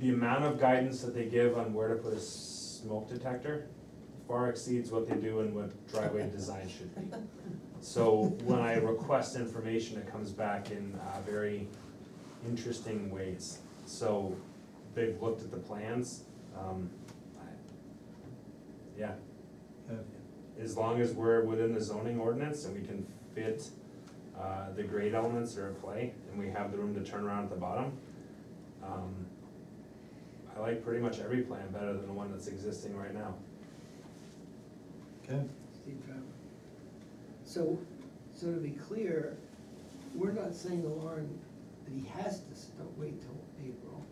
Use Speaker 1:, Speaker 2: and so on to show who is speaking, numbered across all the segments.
Speaker 1: the amount of guidance that they give on where to put a smoke detector far exceeds what they do and what driveway design should be. So when I request information, it comes back in uh, very interesting ways. So they've looked at the plans, um, I- yeah, as long as we're within the zoning ordinance and we can fit uh, the grade elements that are at play, and we have the room to turn around at the bottom. um, I like pretty much every plan better than the one that's existing right now.
Speaker 2: Okay,
Speaker 3: Steve Trevor. So, so to be clear, we're not saying to Lauren that he has to s- don't wait till April.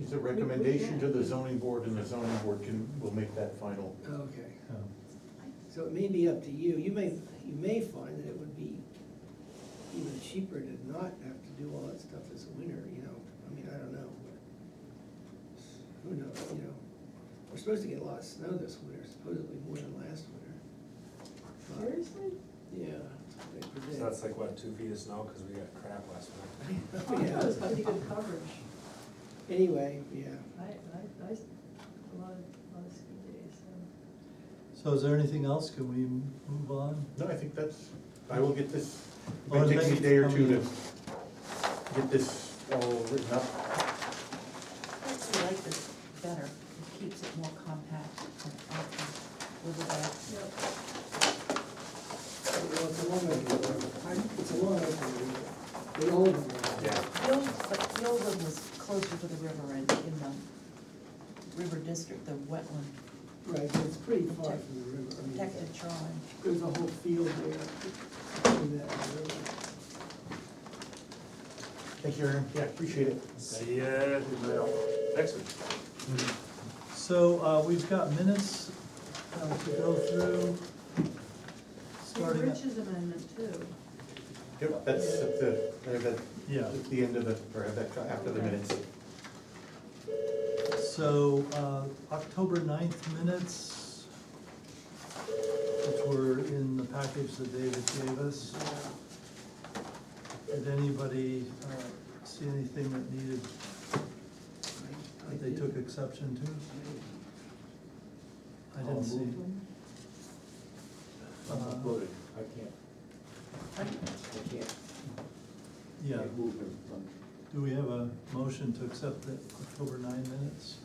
Speaker 4: It's a recommendation to the zoning board and the zoning board can, will make that final.
Speaker 3: Okay,
Speaker 4: Uh,
Speaker 2: um,
Speaker 3: so it may be up to you. You may, you may find that it would be even cheaper to not have to do all that stuff this winter, you know? I mean, I don't know, but who knows, you know? We're supposed to get a lot of snow this winter, supposedly more than last winter. But,
Speaker 5: Seriously?
Speaker 3: Yeah, that's what they
Speaker 1: So
Speaker 3: predict.
Speaker 1: that's like, what, two feet of snow, because we got crap last winter.
Speaker 5: Oh, I thought it was pretty good coverage.
Speaker 3: Anyway, yeah.
Speaker 5: I, I, I, s- a lot of, a lot of ski days, so.
Speaker 2: so is there anything else? Can we move on?
Speaker 4: No, I think that's, I will get this,
Speaker 2: Oh,
Speaker 4: it takes me
Speaker 2: thank
Speaker 4: a
Speaker 2: you
Speaker 4: day or
Speaker 2: for
Speaker 4: two to
Speaker 2: coming
Speaker 4: get this all written up.
Speaker 6: I actually like this better, it keeps it more compact and open, with the,
Speaker 3: Well, it's a long way. I- It's a long way. The old one.
Speaker 1: Yeah,
Speaker 6: the old, but the old one was closer to the river and in the river district, the wetland
Speaker 3: Right, but it's pretty far from the river. I mean,
Speaker 6: protected shoreline.
Speaker 3: There's a whole field there. in that river.
Speaker 4: Thank you, Aaron. Yeah, appreciate it.
Speaker 1: see ya next week.
Speaker 2: So, uh, we've got minutes uh, to go through.
Speaker 5: There's
Speaker 2: Starting, at-
Speaker 5: Rich's amendment too.
Speaker 4: Yep, that's at the, or that,
Speaker 2: yeah,
Speaker 4: at the end of the, or that, after the minutes.
Speaker 2: so, uh, October 9th minutes, which were in the package that David gave us. Did anybody, uh, see anything that needed,
Speaker 3: I- I
Speaker 2: that they
Speaker 3: did-
Speaker 2: took exception to?
Speaker 3: I-
Speaker 2: I didn't see.
Speaker 4: I'm
Speaker 2: Uh,
Speaker 4: uploaded. I can't, I can't,
Speaker 2: Yeah,
Speaker 4: move them.
Speaker 2: do we have a motion to accept the October 9 minutes?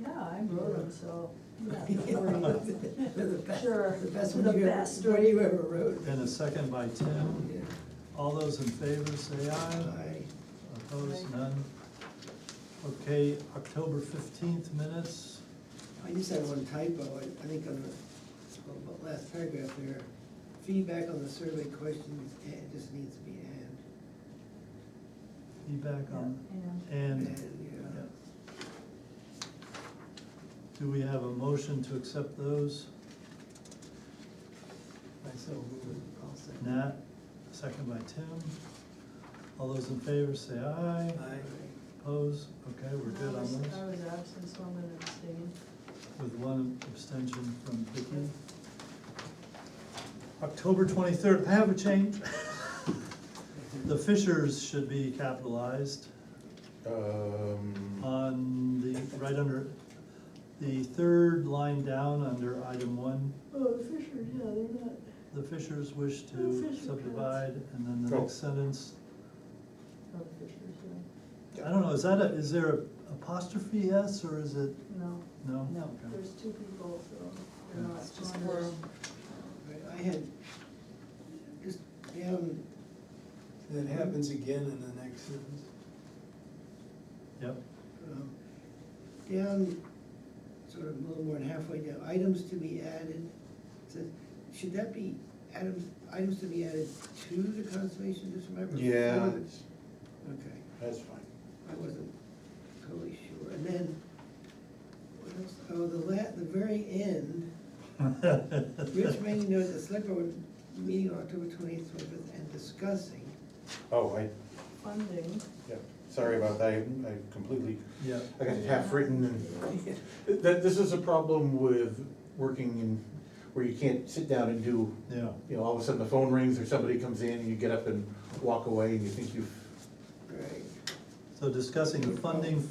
Speaker 5: Yeah, I wrote them, so.
Speaker 3: They're the best-
Speaker 5: Sure,
Speaker 3: The best
Speaker 5: the
Speaker 3: one you ever,
Speaker 5: best.
Speaker 3: one you ever wrote.
Speaker 2: And a second by Tim.
Speaker 3: Yeah.
Speaker 2: All those in favor, say aye.
Speaker 3: I-
Speaker 2: Opposed, none. Okay, October fifteenth minutes,
Speaker 3: I just had one typo, I, I think on the, on the last paragraph there, feedback on the survey questions, it just needs to be and.
Speaker 2: feedback on,
Speaker 5: And
Speaker 2: and,
Speaker 3: And,
Speaker 2: yeah.
Speaker 3: yeah.
Speaker 2: Do we have a motion to accept those? I so
Speaker 3: I'll say.
Speaker 2: Nat, second by Tim. All those in favor, say aye.
Speaker 3: Aye.
Speaker 2: Opposed, okay, we're good
Speaker 5: I
Speaker 2: on
Speaker 5: was- I
Speaker 2: those,
Speaker 5: was absent, so I'm gonna abstain.
Speaker 2: with one abstention from Vicky. October twenty-third, I have a change. The Fishers should be capitalized
Speaker 4: Um,
Speaker 2: on the, right under, the third line down under item one.
Speaker 5: Oh, the Fishers, yeah, they're not.
Speaker 2: The Fishers wish
Speaker 5: Oh,
Speaker 2: to
Speaker 5: Fisher
Speaker 2: subdivide, and then the
Speaker 4: Oh.
Speaker 2: next sentence,
Speaker 5: Oh, the Fishers, yeah.
Speaker 2: I don't know, is that a, is there a apostrophe S or is it,
Speaker 5: No,
Speaker 2: no?
Speaker 6: No,
Speaker 2: Okay.
Speaker 5: there's two people, so they're
Speaker 2: Yeah.
Speaker 5: not.
Speaker 6: It's just
Speaker 5: Saunders.
Speaker 6: worm.
Speaker 3: I- I had, just down,
Speaker 7: That happens again in the next sentence.
Speaker 2: Yep,
Speaker 3: um, down, sort of a little more than halfway down, items to be added. It says, should that be items, items to be added to the conservation district? remember?
Speaker 4: yeah,
Speaker 3: Or the-
Speaker 4: it's-
Speaker 3: Okay.
Speaker 4: that's fine.
Speaker 3: I wasn't totally sure, and then, what else, oh, the la, the very end, Rich made note the select board meeting on October twentieth, twenty-fifth, and discussing,
Speaker 4: Oh, I,
Speaker 5: Funding.
Speaker 4: yeah, sorry about that, I I completely
Speaker 2: yep,
Speaker 4: I got it half written and, that, this is a problem with working in, where you can't sit down and do,
Speaker 2: yeah,
Speaker 4: you know, all of a sudden the phone rings or somebody comes in and you get up and walk away and you think you've
Speaker 3: right?
Speaker 2: so discussing the funding